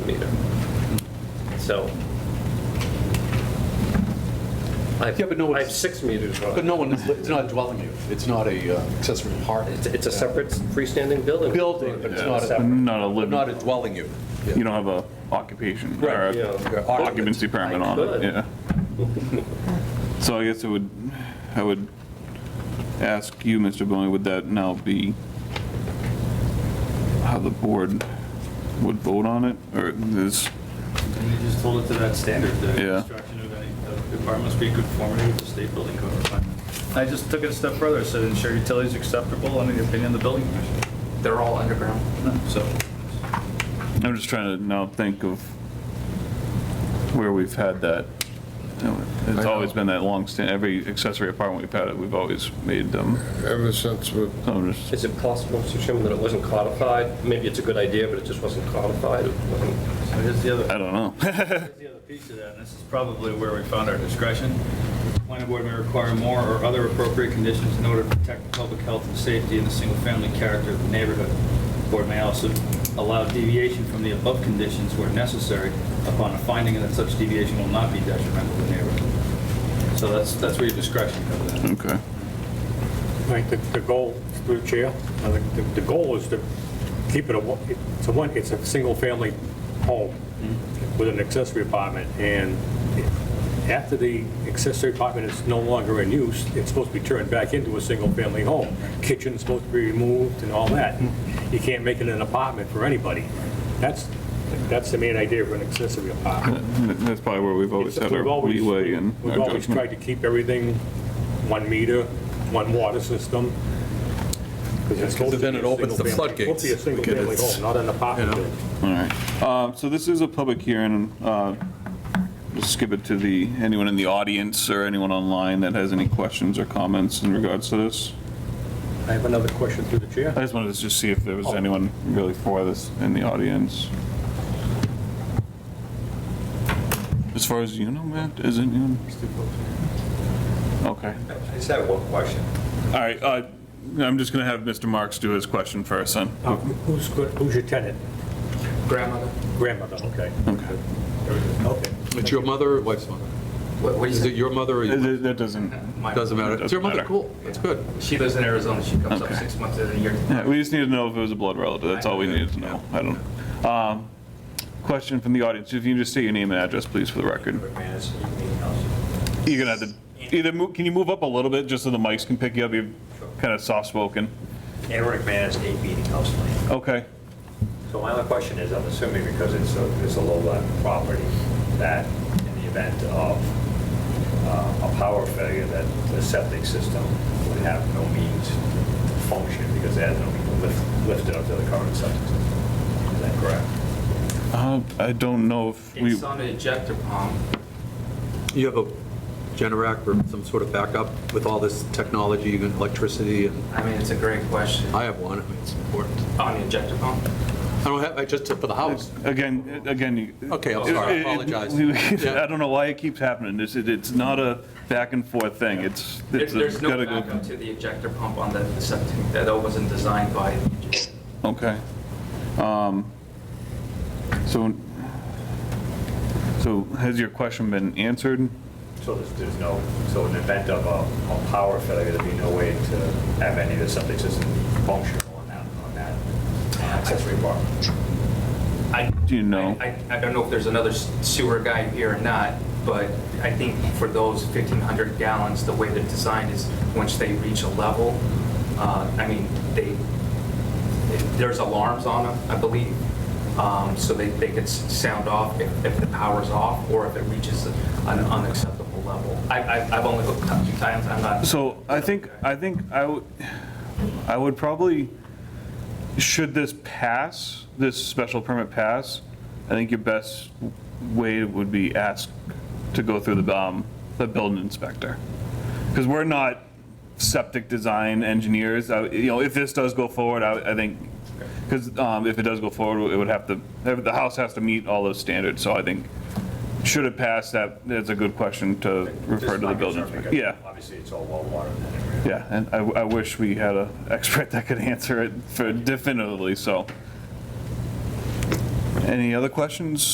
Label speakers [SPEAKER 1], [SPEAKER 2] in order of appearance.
[SPEAKER 1] so. I've-
[SPEAKER 2] Yeah, but no,
[SPEAKER 1] I have
[SPEAKER 2] it's-
[SPEAKER 1] six meters
[SPEAKER 2] But
[SPEAKER 1] wide.
[SPEAKER 2] no one, is li- it's not a dwelling unit, it's not a uh, accessory
[SPEAKER 1] It's-
[SPEAKER 2] apartment.
[SPEAKER 1] It's a separate freestanding building.
[SPEAKER 2] Building, but it's not a-
[SPEAKER 1] Separate.
[SPEAKER 3] Not a
[SPEAKER 2] Not a
[SPEAKER 3] living,
[SPEAKER 2] dwelling unit. Yeah.
[SPEAKER 3] you don't have a occupation or
[SPEAKER 2] Right,
[SPEAKER 3] a
[SPEAKER 1] yeah.
[SPEAKER 3] occupancy permit on
[SPEAKER 1] could.
[SPEAKER 3] it, yeah. So I guess it would, I would ask you, Mr. Boney, would that now be how the board would vote on it? Or is,
[SPEAKER 4] And you just hold it to that standard, the
[SPEAKER 3] Yeah.
[SPEAKER 4] construction of any of the apartment must be in conformity with the state building code requirement. I just took it a step further, said ensure utilities acceptable under the opinion of the building commission.
[SPEAKER 5] They're all underground.
[SPEAKER 4] So,
[SPEAKER 3] I'm just trying to now think of where we've had that. It's always been that long stand, every accessory apartment we've had, we've always made them,
[SPEAKER 6] Ever since we,
[SPEAKER 3] so I'm just,
[SPEAKER 1] Is it possible, Mr. Chairman, that it wasn't codified? Maybe it's a good idea, but it just wasn't codified. It wasn't-
[SPEAKER 4] so here's the
[SPEAKER 3] I
[SPEAKER 4] other,
[SPEAKER 3] don't know.
[SPEAKER 4] here's the other piece of that, and this is probably where we found our discretion. The Planning board may require more or other appropriate conditions in order to protect the public health and safety and the single-family character of the neighborhood. The Board may also allow deviation from the above conditions where necessary upon a finding that such deviation will not be detrimental to the neighborhood. So that's, that's where your discretion comes in.
[SPEAKER 3] Okay.
[SPEAKER 7] I think the, the goal, through the chair, I think the, the goal is to keep it a, one- it's a one, it's a single-family home with an accessory apartment, and after the accessory apartment is no longer in use, it's supposed to be turned back into a single-family home. Kitchen's supposed to be removed and all that. You can't make it an apartment for anybody. That's, that's the main idea of an accessory apartment.
[SPEAKER 3] That's probably where we've always had
[SPEAKER 7] We've
[SPEAKER 3] our
[SPEAKER 7] always-
[SPEAKER 3] leeway and
[SPEAKER 7] We've
[SPEAKER 3] our
[SPEAKER 7] always tried
[SPEAKER 3] judgment.
[SPEAKER 7] to keep everything one meter, one water system. it's
[SPEAKER 2] because then it opens the
[SPEAKER 7] supposed to be a
[SPEAKER 2] floodgates.
[SPEAKER 7] single family- It's supposed to be a single-family home, not an apartment building.
[SPEAKER 3] All right. Uh, So this is a public hearing. uh, We'll skip it to the, anyone in the audience or anyone online that has any questions or comments in regards to this.
[SPEAKER 7] I have another question through the chair.
[SPEAKER 3] I just wanted to just see if there
[SPEAKER 7] Oh.
[SPEAKER 3] was anyone really for this in the audience. As far as you know, Matt, is anyone? Okay.
[SPEAKER 8] I just have one question.
[SPEAKER 3] All right. uh, I'm just going to have Mr. Marks do his question first then.
[SPEAKER 7] Uh, Who's, good- who's your tenant?
[SPEAKER 8] Grandmother,
[SPEAKER 7] Grandmother, okay.
[SPEAKER 3] Okay.
[SPEAKER 7] Okay.
[SPEAKER 2] It's your mother or wife's mother?
[SPEAKER 8] what, what do you
[SPEAKER 2] Is it
[SPEAKER 8] say?
[SPEAKER 2] your mother or your,
[SPEAKER 3] That that doesn't.
[SPEAKER 8] My-
[SPEAKER 2] doesn't matter? It's your mother,
[SPEAKER 3] Doesn't matter.
[SPEAKER 2] cool, that's good.
[SPEAKER 8] She lives in Arizona. She comes up
[SPEAKER 3] Okay.
[SPEAKER 8] six months in a year.
[SPEAKER 3] Yeah, we just needed to know if it was a blood relative, that's all we needed to know, I don't. Um, Question from the audience, if you can just state your name and address, please, for the record. You're gonna have to, either, mo- can you move up a little bit, just so the mics can pick you up, you're kind of soft-spoken?
[SPEAKER 9] Eric Manis, 8 Meeting House Lane.
[SPEAKER 3] Okay,
[SPEAKER 9] So my only question is, I'm assuming because it's a, it's a low-lot property, that in the event of uh, a power failure, that the septic system would have no means to function because it has no means to lift, lift it up to the current septic system. Is that correct?
[SPEAKER 3] Uh, I don't know if we,
[SPEAKER 5] It's on an ejector pump.
[SPEAKER 2] You have a Generac or some sort of backup with all this technology and electricity? and
[SPEAKER 5] I mean, it's a great
[SPEAKER 3] Uh,
[SPEAKER 5] question.
[SPEAKER 2] I have one, I mean, it's important.
[SPEAKER 5] On the ejector pump?
[SPEAKER 2] I don't have, I just, for the house.
[SPEAKER 3] again, again. you-
[SPEAKER 2] Okay, I'm sorry, I
[SPEAKER 3] It- it-
[SPEAKER 2] apologize.
[SPEAKER 3] we-
[SPEAKER 2] Yeah.
[SPEAKER 3] I don't know why it keeps happening, it's, it- it's not a back and forth thing, it's.
[SPEAKER 5] There-
[SPEAKER 3] it's a-
[SPEAKER 5] There's no
[SPEAKER 3] gotta go-
[SPEAKER 5] backup to the ejector pump on the septic. That wasn't designed by the engineer.
[SPEAKER 3] Okay. Um, So, so has your question been answered?
[SPEAKER 9] So there's, there's no, so in the event of a, a power failure, there'd be no way to have any of the septic system functional on that, on that uh, accessory apartment?
[SPEAKER 5] I-
[SPEAKER 3] Do you know?
[SPEAKER 5] I, I I don't know if there's another s- sewer guy here or not, but I think for those 1,500 gallons, the way they're designed is, once they reach a level, uh, I mean, they, it- there's alarms on them, I believe, um, so they, they could s- sound off if, if the power's off, or if it reaches an unacceptable level. I, I- I've only looked up two times, I'm not.
[SPEAKER 3] So I think, I think I would, I would probably, should this pass, this special permit pass, I think your best way would be ask to go through the, um, the building inspector. Because we're not septic design engineers, I- you know, if this does go forward, I, I think, because if it does go forward, it would have to, the house has to meet all those standards, so I think, should it pass, that, that's a good question to refer to the building inspector. Yeah.
[SPEAKER 9] Obviously, it's all well watered in that area.
[SPEAKER 3] Yeah, and I, I wish we had an expert that could answer it for definitively, so. Any other questions?